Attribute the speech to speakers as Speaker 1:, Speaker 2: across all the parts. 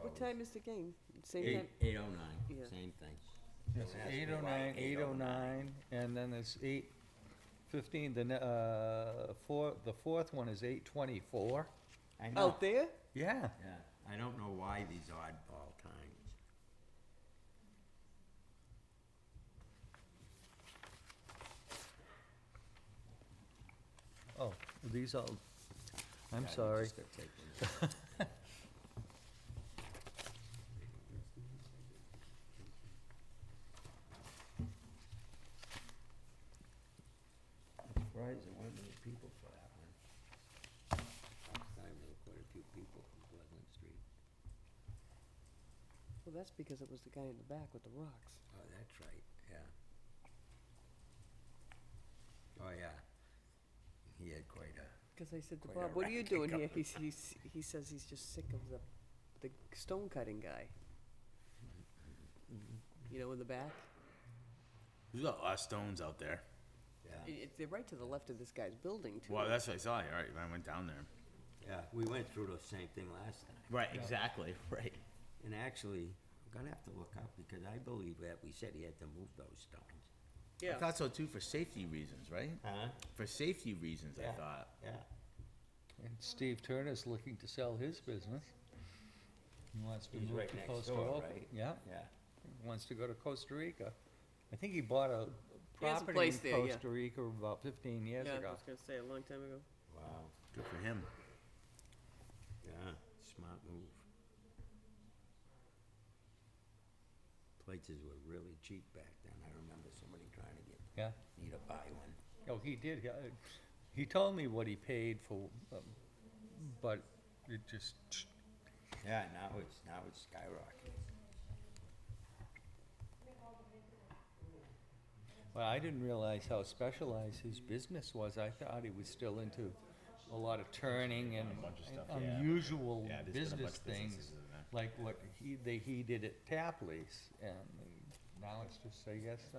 Speaker 1: What time is the game? Same
Speaker 2: Eight,
Speaker 1: time?
Speaker 2: eight oh nine,
Speaker 1: Yeah.
Speaker 2: same thing.
Speaker 3: It's
Speaker 2: Don't ask me
Speaker 3: eight oh
Speaker 2: why
Speaker 3: nine, eight oh
Speaker 2: 809.
Speaker 3: nine, and then there's eight fifteen, the, ne- uh, four, the fourth one is eight twenty-four.
Speaker 2: I know,
Speaker 1: Out there?
Speaker 3: Yeah,
Speaker 2: yeah, I don't know why these oddball times.
Speaker 3: oh, these all, I'm
Speaker 2: Yeah, they
Speaker 3: sorry.
Speaker 2: just got taken out. I'm Surprised there weren't many people for that one. Last time there were quite a few people from Pleasant Street.
Speaker 1: Well, that's because it was the guy in the back with the rocks.
Speaker 2: Oh, that's right, yeah. Oh, yeah. He had quite a,
Speaker 1: Because I said to
Speaker 2: Quite a
Speaker 1: Bob, what are you
Speaker 2: racket
Speaker 1: doing here?
Speaker 2: going.
Speaker 1: He's, he's, he says he's just sick of the, the stone cutting guy. You know, in the back?
Speaker 4: There's a lot of stones out
Speaker 1: I-
Speaker 4: there.
Speaker 2: yeah,
Speaker 1: it- They're right to the left of this guy's building, too.
Speaker 4: Well, that's what I saw. All right, I went down there.
Speaker 2: yeah, we went through the same thing last time.
Speaker 4: Right, exactly. Right.
Speaker 2: And actually, I'm gonna have to look up, because I believe that we said he had to move those stones.
Speaker 4: I thought so too, for safety reasons, right?
Speaker 2: Huh?
Speaker 4: For safety reasons,
Speaker 2: Yeah.
Speaker 4: I thought.
Speaker 2: Yeah.
Speaker 3: And Steve Turner's looking to sell his business. He wants to
Speaker 2: He's
Speaker 3: move
Speaker 2: right
Speaker 3: to
Speaker 2: next
Speaker 3: Costa
Speaker 2: door,
Speaker 3: Rica.
Speaker 2: right?
Speaker 3: Yeah,
Speaker 2: Yeah.
Speaker 3: he wants to go to Costa Rica. I think he bought a
Speaker 1: He has a
Speaker 3: property
Speaker 1: place
Speaker 3: in
Speaker 1: there, yeah.
Speaker 3: Costa Rica about fifteen years ago.
Speaker 1: gonna say, a long time ago.
Speaker 2: Wow.
Speaker 4: Good for him.
Speaker 2: Yeah, smart move. Places were really cheap back then. I remember somebody trying to get,
Speaker 3: Yeah,
Speaker 2: me to buy one.
Speaker 3: oh, he did, he- uh, he told me what he paid for, um, but it just,
Speaker 2: Yeah, now it's, now it's skyrocketing.
Speaker 3: well, I didn't realize how specialized his business was. I thought he was still into a lot of turning and
Speaker 4: bunch of
Speaker 3: and
Speaker 4: stuff, yeah.
Speaker 3: unusual
Speaker 4: Yeah, there's been a bunch
Speaker 3: business
Speaker 4: of businesses
Speaker 3: things.
Speaker 4: in there.
Speaker 3: like what he, they, he did at Tapley's, and now it's just, I guess, uh,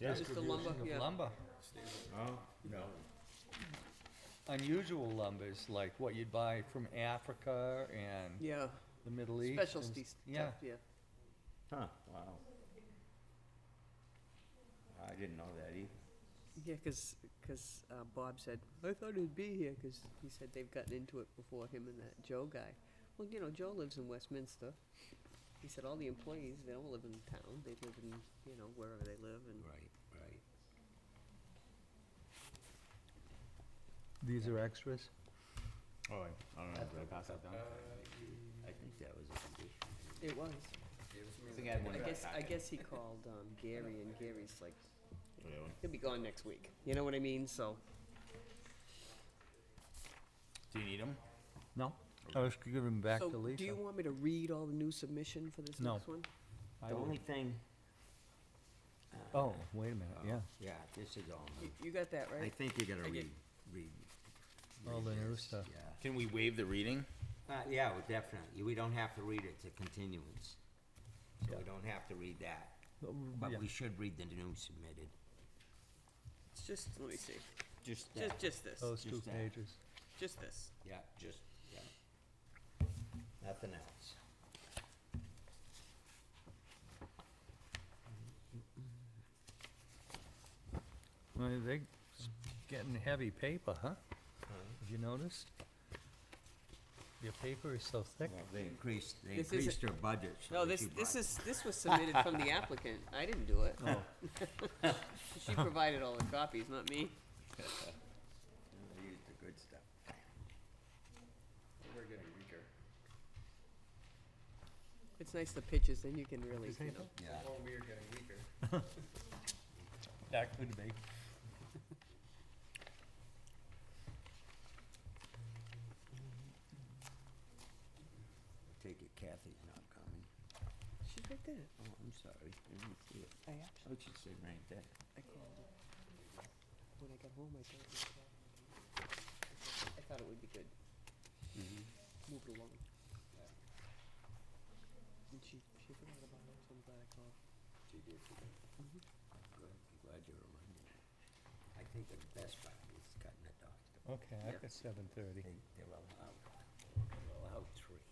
Speaker 4: Yeah.
Speaker 1: Just the lumber,
Speaker 3: distribution
Speaker 1: yeah.
Speaker 3: of lumber.
Speaker 4: Oh no.
Speaker 3: Unusual lumbers, like what you'd buy from Africa and
Speaker 1: Yeah,
Speaker 3: the Middle East. and
Speaker 1: specialty
Speaker 3: s-
Speaker 1: stuff,
Speaker 3: Yeah,
Speaker 1: yeah.
Speaker 2: Huh, wow. I didn't know that either.
Speaker 1: Yeah, because, uh, Bob said, I thought it'd be here, because he said they've gotten into it before, him and that Joe guy. Well, you know, Joe lives in Westminster. He said all the employees, they don't live in town, they live in, you know, wherever they live, and
Speaker 2: Right, right.
Speaker 3: these are extras.
Speaker 4: Oh, I, I don't know. Did I pass that down?
Speaker 2: I think that was a condition.
Speaker 1: it was.
Speaker 4: I think I had one.
Speaker 1: I guess, I guess he called, um, Gary, and Gary's like,
Speaker 4: Yeah, one.
Speaker 1: he'll be gone next week, you know what I mean, so.
Speaker 4: Do you need them?
Speaker 3: No, I was giving them back to
Speaker 1: So, do
Speaker 3: Lisa.
Speaker 1: you want me to read all the new submission for this
Speaker 3: No.
Speaker 1: next one?
Speaker 3: I
Speaker 2: The
Speaker 3: would-
Speaker 2: only thing. uh,
Speaker 3: Oh, wait a minute,
Speaker 2: oh,
Speaker 3: yeah,
Speaker 2: Yeah, this is all
Speaker 1: You,
Speaker 2: new.
Speaker 1: you got that,
Speaker 2: I
Speaker 1: right?
Speaker 2: think you gotta
Speaker 1: I get-
Speaker 2: read, read.
Speaker 3: All
Speaker 2: read
Speaker 3: the new
Speaker 2: this,
Speaker 3: stuff.
Speaker 2: Yeah,
Speaker 4: Can we waive the reading?
Speaker 2: uh, yeah, well, definitely. We don't have to read it, it's a continuance. So we don't have to read that,
Speaker 3: Uh, yeah.
Speaker 2: but we should read the new submitted.
Speaker 1: It's just, let me see,
Speaker 2: Just
Speaker 1: just, just this,
Speaker 3: those two
Speaker 2: just that.
Speaker 3: pages.
Speaker 1: just this.
Speaker 2: Yeah, just, yeah. Nothing else.
Speaker 3: Well, they're getting heavy paper, huh? Have you noticed? Your paper is so thick.
Speaker 2: Well, They increased, they
Speaker 1: This isn't-
Speaker 2: increased their budget. so
Speaker 1: No,
Speaker 2: they
Speaker 1: this,
Speaker 2: should
Speaker 1: this
Speaker 2: buy-
Speaker 1: is, this was submitted from the applicant. I didn't do it.
Speaker 3: Oh,
Speaker 1: She provided all the copies, not me.
Speaker 2: They used the good stuff. We're getting weaker.
Speaker 1: It's nice the pictures, then you can really, you know.
Speaker 2: Yeah.
Speaker 3: that could be.
Speaker 2: Take it Kathy's not coming.
Speaker 1: She's right there.
Speaker 2: Oh, I'm sorry, I didn't see it.
Speaker 1: I
Speaker 2: Oh,
Speaker 1: actually,
Speaker 2: she's sitting right there.
Speaker 1: I called her. When I got home, I thought it was I thought it would be good. Move it along. And she, she forgot about it, so I'm glad I called.
Speaker 2: She did. Mm-hmm. Good, I'm glad you reminded me. I think the best part is cutting the dogs.
Speaker 3: Okay,
Speaker 1: Yeah.
Speaker 3: I've got seven thirty.
Speaker 2: They, they're allowed, they're allowed three.